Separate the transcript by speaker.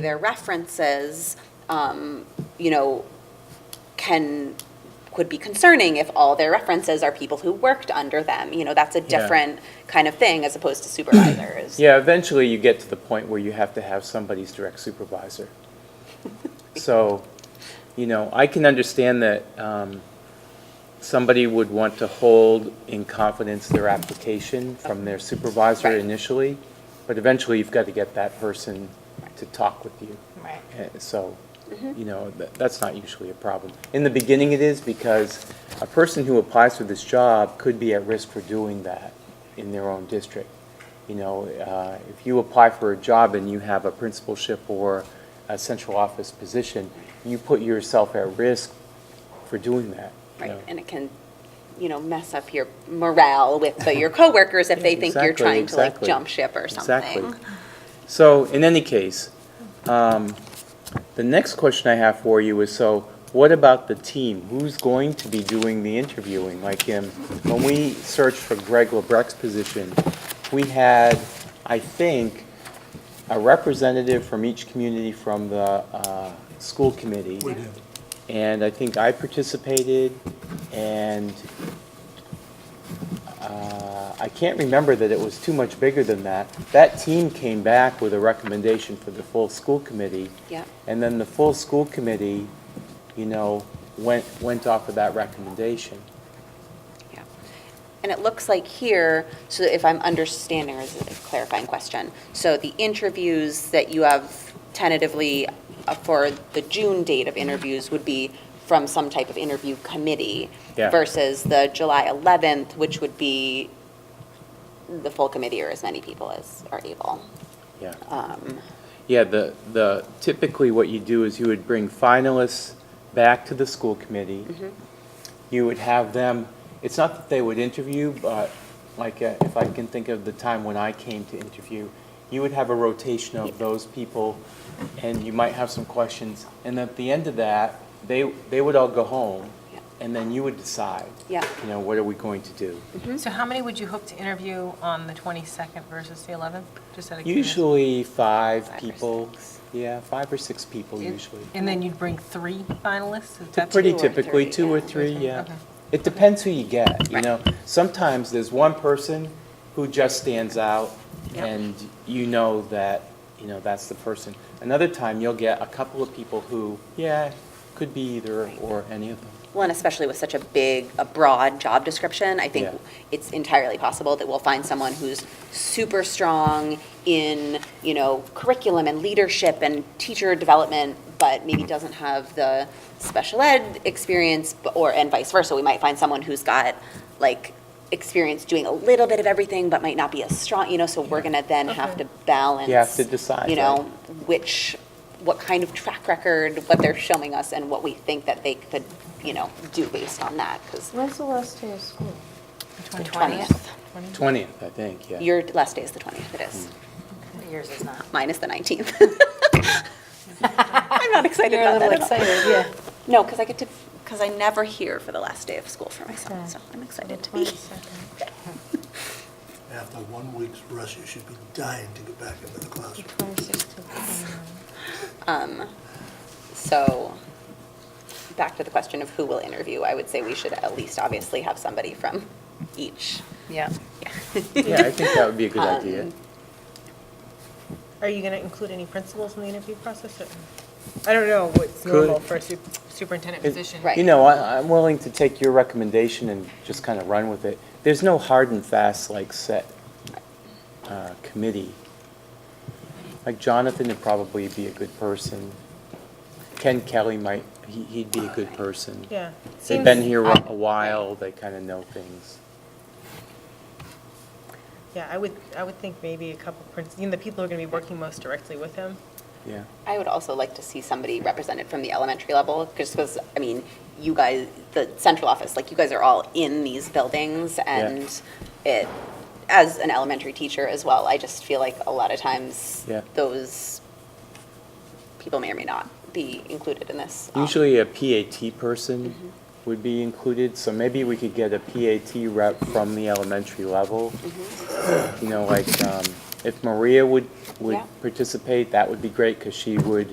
Speaker 1: their references, um, you know, can, could be concerning if all their references are people who worked under them. You know, that's a different kind of thing as opposed to supervisors.
Speaker 2: Yeah, eventually you get to the point where you have to have somebody's direct supervisor. So, you know, I can understand that um, somebody would want to hold in confidence their application from their supervisor
Speaker 1: Right.
Speaker 2: initially, but eventually you've got to get that person to talk with you.
Speaker 3: Right.
Speaker 2: Uh, So, you know, tha- that's not usually a problem. In the beginning, it is because a person who applies for this job could be at risk for doing that in their own district. You know, uh, if you apply for a job and you have a principalship or a central office position, you put yourself at risk for doing that. you
Speaker 1: Right,
Speaker 2: know.
Speaker 1: and it can, you know, mess up your morale with the- your coworkers if they think you're
Speaker 2: Exactly,
Speaker 1: trying to like
Speaker 2: exactly.
Speaker 1: jump ship or
Speaker 2: Exactly.
Speaker 1: something.
Speaker 2: So in any case, um, the next question I have for you is, so what about the team? Who's going to be doing the interviewing? Like um, when we searched for Greg LeBrec's position, we had, I think, a representative from each community from the uh, school committee.
Speaker 4: We did.
Speaker 2: And I think I participated, and uh, I can't remember that it was too much bigger than that. That team came back with a recommendation for the full school committee.
Speaker 1: Yeah.
Speaker 2: And then the full school committee, you know, went, went off of that recommendation.
Speaker 1: Yeah. And it looks like here, so if I'm understanding, or is it a clarifying question? So the interviews that you have tentatively uh, for the June date of interviews would be from some type of interview committee
Speaker 2: Yeah.
Speaker 1: versus the July 11th, which would be the full committee or as many people as are able.
Speaker 2: Yeah.
Speaker 1: Um,
Speaker 2: Yeah, the, the, typically what you do is you would bring finalists back to the school committee. You would have them, it's not that they would interview, but like, uh, if I can think of the time when I came to interview, you would have a rotation of those people, and you might have some questions. And at the end of that, they, they would all go home,
Speaker 1: Yeah.
Speaker 2: and then you would decide.
Speaker 1: Yeah.
Speaker 2: You know, what are we going to do?
Speaker 3: Mm-hmm. So how many would you hope to interview on the 22nd versus the 11th? Just out of curiosity.
Speaker 2: Usually five
Speaker 3: Five or
Speaker 2: people.
Speaker 3: six.
Speaker 2: Yeah, five or six people usually.
Speaker 3: And then you'd bring three finalists? Is
Speaker 2: Ty-
Speaker 3: that
Speaker 2: Pretty
Speaker 3: true, or-
Speaker 2: typically,
Speaker 1: three,
Speaker 2: two or
Speaker 1: yeah.
Speaker 2: three, yeah.
Speaker 3: Okay.
Speaker 2: It depends who you get, you
Speaker 1: Right.
Speaker 2: know? Sometimes there's one person who just stands out,
Speaker 3: Yeah.
Speaker 2: and you know that, you know, that's the person. Another time, you'll get a couple of people who, yeah, could be either or any of them.
Speaker 1: Well, and especially with such a big, a broad job description, I think
Speaker 2: Yeah.
Speaker 1: it's entirely possible that we'll find someone who's super strong in, you know, curriculum and leadership and teacher development, but maybe doesn't have the special ed experience, b- or, and vice versa. We might find someone who's got, like, experience doing a little bit of everything, but might not be as strong, you know, so we're gonna then have to
Speaker 3: Okay.
Speaker 1: balance.
Speaker 2: You have to decide,
Speaker 1: You know,
Speaker 2: right.
Speaker 1: which, what kind of track record, what they're showing us, and what we think that they could, you know, do based on that, because
Speaker 5: When's the last day of school?
Speaker 3: The
Speaker 1: 20th.
Speaker 3: 20th?
Speaker 2: 20th, I think, yeah.
Speaker 1: your last day is the 20th, it is. Uh,
Speaker 5: Yours is not.
Speaker 1: Mine is the 19th. I'm not excited
Speaker 5: You're a
Speaker 1: about
Speaker 5: little
Speaker 1: that at all.
Speaker 5: excited, yeah.
Speaker 1: No, because I get to, because I never hear for the last day of school for my son,
Speaker 5: Okay.
Speaker 1: so I'm excited to be.
Speaker 4: After one week's rest, you should be dying to get back into the classroom.
Speaker 1: So, back to the question of who will interview, I would say we should at least obviously have somebody from each.
Speaker 3: Yeah.
Speaker 2: Yeah, I think that would be a good
Speaker 1: Um,
Speaker 2: idea.
Speaker 3: Are you going to include any principals in the interview process? or- I don't know what's normal for a su- superintendent
Speaker 2: It-
Speaker 3: position.
Speaker 1: Right.
Speaker 2: You know, I, I'm willing to take your recommendation and just kind of run with it. There's no hard and fast, like, set uh, committee. Like Jonathan would probably be a good person. Ken Kelly might, he, he'd be a good person.
Speaker 3: Yeah.
Speaker 2: They've
Speaker 3: Seems-
Speaker 2: been here a while, they kind of know things.
Speaker 3: Yeah, I would, I would think maybe a couple, princi- you know, the people who are going to be working most directly with him.
Speaker 2: Yeah,
Speaker 1: I would also like to see somebody represented from the elementary level, just because, I mean, you guys, the central office, like, you guys are all in these buildings, and it, as an elementary teacher as well, I just feel like a lot of times,
Speaker 2: Yeah.
Speaker 1: those people may or may not be included in this. um,
Speaker 2: usually a PAT person would be included, so maybe we could get a PAT rep from the elementary level. You know, like, um, if Maria would, would
Speaker 1: Yeah.
Speaker 2: participate, that would be great, because she would